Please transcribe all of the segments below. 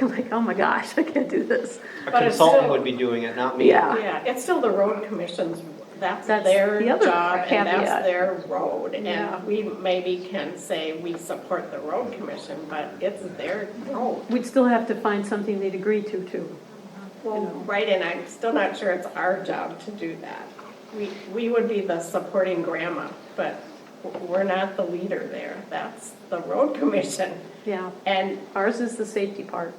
I'm like, oh my gosh, I can't do this. A But it's consultant still- would be doing it, not me. Yeah. Yeah, it's still the road commission's, that's That's their the other job and caveat. that's their road. Yeah. And we maybe can say we support the road commission, but it's their road. We'd still have to find something they'd agree to, too. Well, right, and I'm still not sure it's our job to do that. We, we would be the supporting grandma, but we're not the leader there. That's the road commission. Yeah. And Ours is the safety part.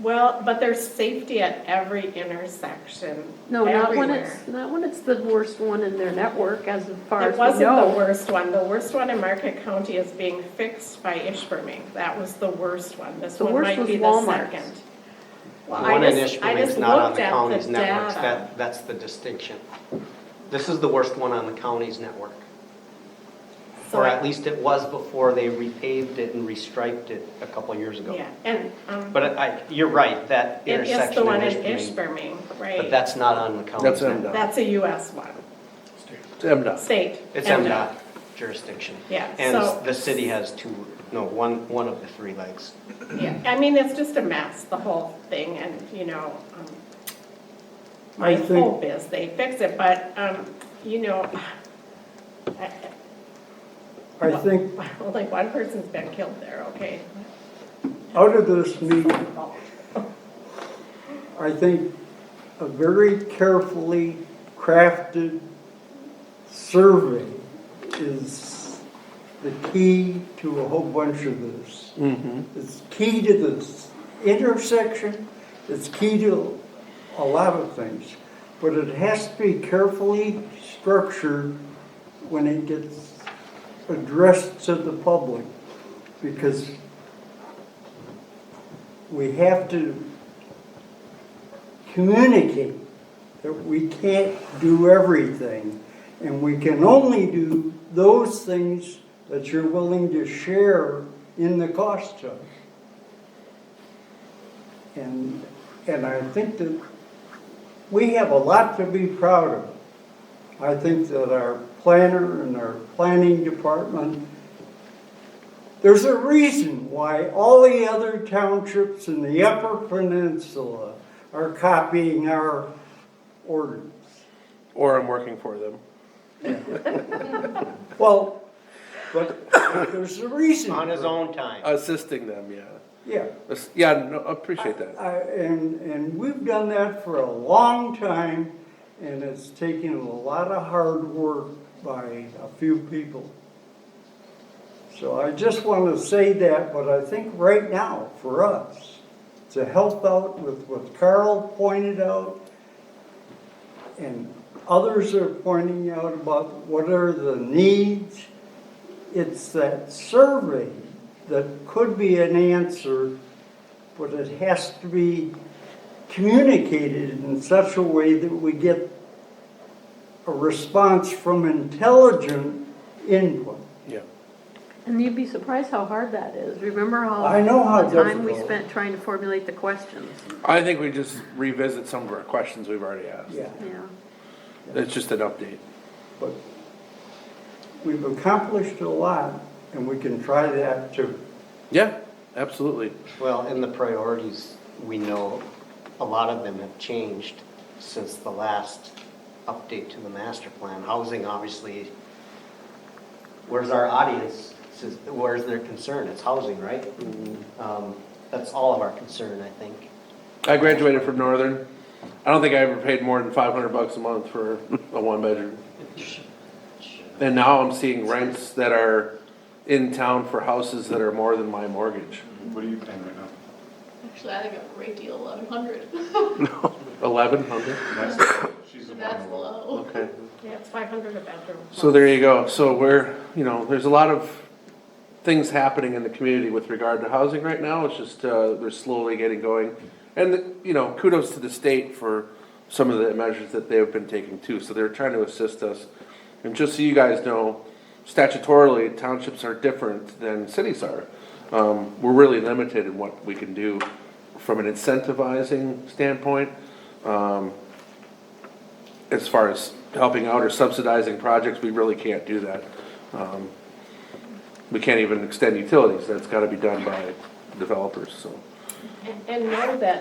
Well, but there's safety at every intersection. No, not when everywhere. it's, not when it's the worst one in their network, as far as It we wasn't the know. worst one. The worst one in Market County is being fixed by Ishburne. That was the worst one. This The one worst might was be the Walmart's. second. The Well, I one in just- I Ishpeming is just not on looked the at county's networks, data. that, that's the distinction. This is the worst one on the county's network, So or I- at least it was before they repaved it and restriped it a couple years ago. Yeah, and, um, But I, you're right, that it is the intersection in one in Ishpeming, Ishburne, but right? that's not on the county's That's network. MDOT. That's a US one, It's MDOT. state. It's and, uh, MDOT jurisdiction. Yeah, so- And the city has two, no, one, one of the three legs. uh, Yeah, I mean, it's just a mess, the whole thing, and, you know, um, my I think- hope is they fix it, but, um, you know, I- I think only one person's been killed there, okay? out of this meeting, I think a very carefully crafted survey is the key to a whole bunch of this. It's key to this intersection, it's key to a lot of things, but it has to be carefully structured when it gets addressed to the public, because we have to communicate that we can't do everything, and we can only do those things that you're willing to share in the cost of. And, and I think that we have a lot to be proud of. I think that our planner and our planning department, there's a reason why all the other townships in the Upper Peninsula are copying our ordinance. Or I'm working for them. Well, but there's a reason. On his for it. own time. Assisting them, yeah. Yeah. Ass- Yeah, no, I appreciate that. I- And, and we've done that for a long time, and it's taken a lot of hard work by a few people. So I just want to say that, but I think right now, for us, to help out with what Carl pointed out, and others are pointing out about what are the needs, it's that survey that could be an answer but it has to be communicated in such a way that we get a response from intelligent input. Yeah. And you'd be surprised how hard that is. Remember how. I know how The time we difficult. spent trying to formulate the questions, I think we just revisit some of our questions we've already asked. Yeah, yeah. It's just an update. but we've accomplished a lot, and we can try that too. Yeah, absolutely. Well, and the priorities, we know, a lot of them have changed since the last update to the master plan. Housing, obviously, where's our audience, Since- where's their concern? It's housing, right? Um, That's all of our concern, I think. I graduated from Northern. I don't think I ever paid more than five hundred bucks a month for a one bedroom. And now I'm seeing rents that are in town for houses that are more than my mortgage. What are you paying right now? Actually, I think a great deal, eleven hundred. Eleven hundred. That's low. She's the one. That's low. Okay. Yeah, it's five hundred a bedroom. So there you go. So we're, you know, there's a lot of things happening in the community with regard to housing right now. It's just, uh, they're slowly getting going. And, you know, kudos to the state for some of the measures that they've been taking too. So they're trying to assist us. And just so you guys know, statutorily, townships are different than cities are. Um, we're really limited in what we can do from an incentivizing standpoint. Um, as far as helping out or subsidizing projects, we really can't do that. Um, We can't even extend utilities, that's gotta be done by developers, so. And- And know that